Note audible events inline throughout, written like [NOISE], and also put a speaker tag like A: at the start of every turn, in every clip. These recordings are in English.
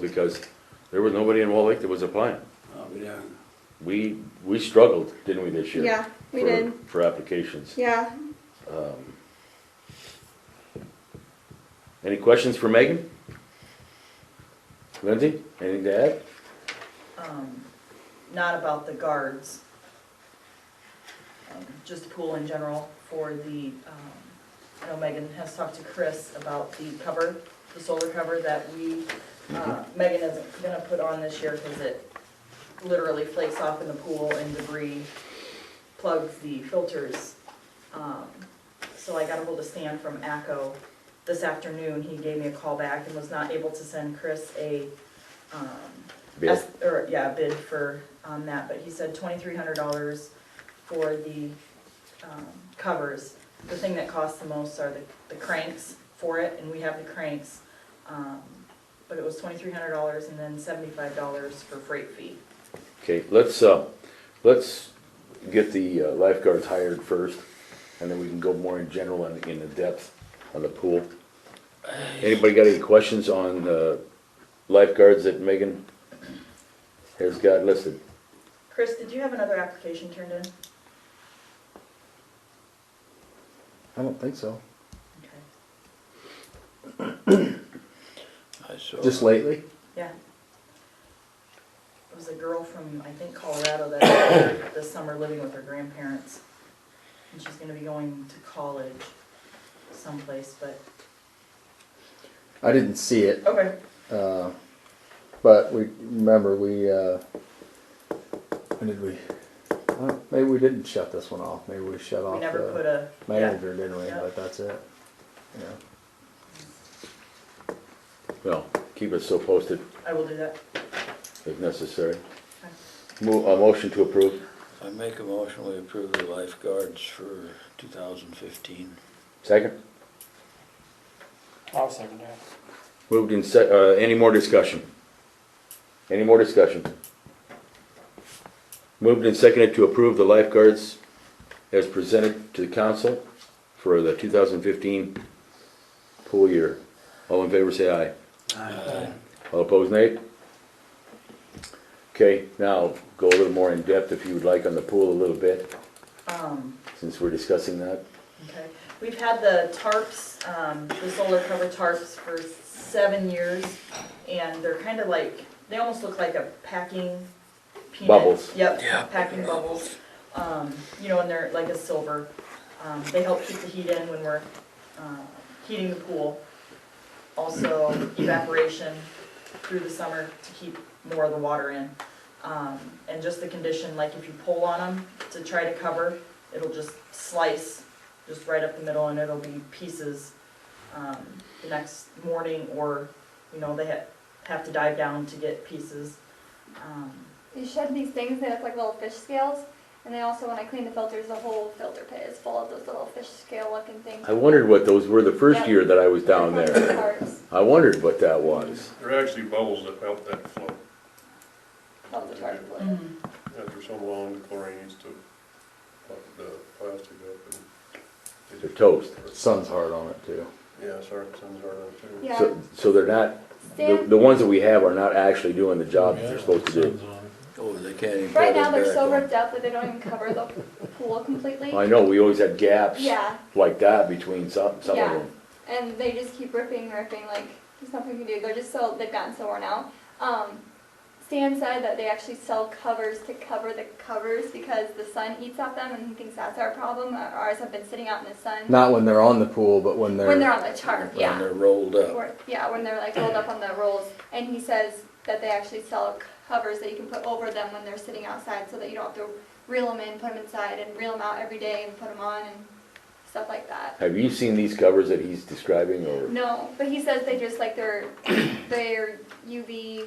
A: because there was nobody in Wall Lake that was applying.
B: Oh, yeah.
A: We, we struggled, didn't we, this year?
C: Yeah, we
A: for-
C: did.
A: For applications.
C: Yeah,
A: Any questions for Megan? Lindsay, anything to add?
D: um, not about the guards. Um, Just the pool in general for the, um, I know Megan has talked to Chris about the cover, the solar cover that we, uh, Megan isn't gonna put on this year because it literally flakes off in the pool and debris plugs the filters. Um, So I got ahold of Stan from ACO this afternoon. He gave me a call back and was not able to send Chris a, um,
A: Bill?
D: Es- Or, yeah, bid for, on that, but he said twenty-three hundred dollars for the, um, covers. The thing that costs the most are the, the cranks for it, and we have the cranks. Um, but it was twenty-three hundred dollars and then seventy-five dollars for freight fee.
A: Okay, let's, uh, let's get the uh, lifeguards hired first, and then we can go more in general and in the depth on the pool. Anybody got any questions on, uh, lifeguards that Megan has got listed?
D: Chris, did you have another application turned in?
E: I don't think so.
D: Okay.
B: I saw.
E: Just lately?
D: Yeah. It was a girl from, I think Colorado that, [COUGHS] this summer living with her grandparents. And she's gonna be going to college someplace, but,
E: I didn't see it,
D: okay,
E: uh, but we remember we. Uh, when did we? Well, maybe we didn't shut this one off. Maybe we shut off
D: we never
E: the
D: put a.
E: manager, didn't we?
D: Yeah.
E: But that's it. Yeah.
A: Well, keep us so posted
D: yeah, I will do that.
A: if necessary. Mo- a motion to approve?
B: I make a motion, we approve the lifeguards for two thousand fifteen.
A: Second?
F: I'll second that.
A: Moved in sec, uh, any more discussion? Any more discussion? Moved and seconded to approve the lifeguards as presented to the council for the two thousand fifteen pool year. All in favor, say aye. All opposed, nay? Okay, now go a little more in depth if you would like on the pool a little bit,
D: Um,
A: since we're discussing that.
D: okay, we've had the tarps, um, the solar cover tarps for seven years, and they're kind of like, they almost look like a packing peanut.
A: Bubbles.
B: Yeah.
D: Yep, packing bubbles. um, you know, and they're like a silver. Um, they help keep the heat in when we're, uh, heating the pool. Also evaporation through the summer to keep more of the water in. Um, and just the condition, like if you pull on them to try to cover, it'll just slice just right up the middle and it'll be pieces, um, the next morning or, you know, they have, have to dive down to get pieces. Um,
C: you shed these things, they look like little fish scales. And then also when I clean the filters, the whole filter pit is full of those little fish scale looking things.
A: I wondered what those were the first year that I was down
C: They're [LAUGHS]
A: there.
C: called tarps.
A: I wondered what that was.
G: They're actually bubbles that help that flow
C: Called the tarp blue.
G: after so long, the chlorine needs to pop the plastic up and.
A: The toast.
E: Sun's hard on it too.
G: Yeah, sorry, sun's hard on it too.
C: Yeah.
A: So, so they're not, the,
C: Stan,
A: the ones that we have are not actually doing the job that they're supposed to do.
B: Oh, they can't even.
C: right
B: put it
C: now they're
B: back
C: so
B: on.
C: ripped up that they don't even cover the pool completely.
A: I know, we always had gaps
C: Yeah,
A: like that between some, some of
C: Yeah.
A: them.
C: and they just keep ripping, ripping, like there's nothing you can do. They're just so, they've gotten so worn out. Um, Stan said that they actually sell covers to cover the covers because the sun eats at them and he thinks that's our problem. Uh, Ours have been sitting out in the sun.
E: Not when they're on the pool, but when they're.
C: When they're on the tarp,
B: When
C: yeah.
B: they're rolled up.
C: Or, yeah, when they're like rolled up on the rolls. And he says that they actually sell covers that you can put over them when they're sitting outside so that you don't have to reel them in, put them inside, and reel them out every day and put them on and stuff like that.
A: Have you seen these covers that he's describing or?
C: No, but he says they just like they're, [COUGHS] they're UV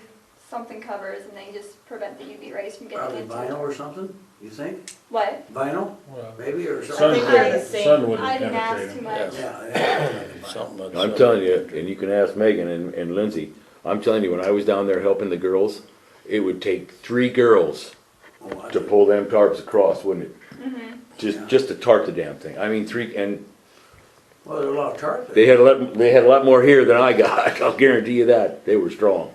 C: something covers and they just prevent the UV rays from getting
H: Probably
C: into
H: vinyl or something, you think?
C: What?
H: Vinyl, maybe, or
D: I
H: something?
D: think they're the same.
C: I didn't ask too much.
B: Yeah.
H: Yeah, yeah.
B: Something like
A: I'm
B: that.
A: telling you, and you can ask Megan and, and Lindsay, I'm telling you, when I was down there helping the girls, it would take three girls
H: Oh, I-
A: to pull them tarps across, wouldn't it?
C: Mm-hmm.
H: Yeah.
A: Just, just to tarp the damn thing. I mean, three, and
H: Well, there's a lot of tarp
A: They
H: there.
A: [LAUGHS] had a lot, they had a lot more here than I got, I'll guarantee you that, they were strong.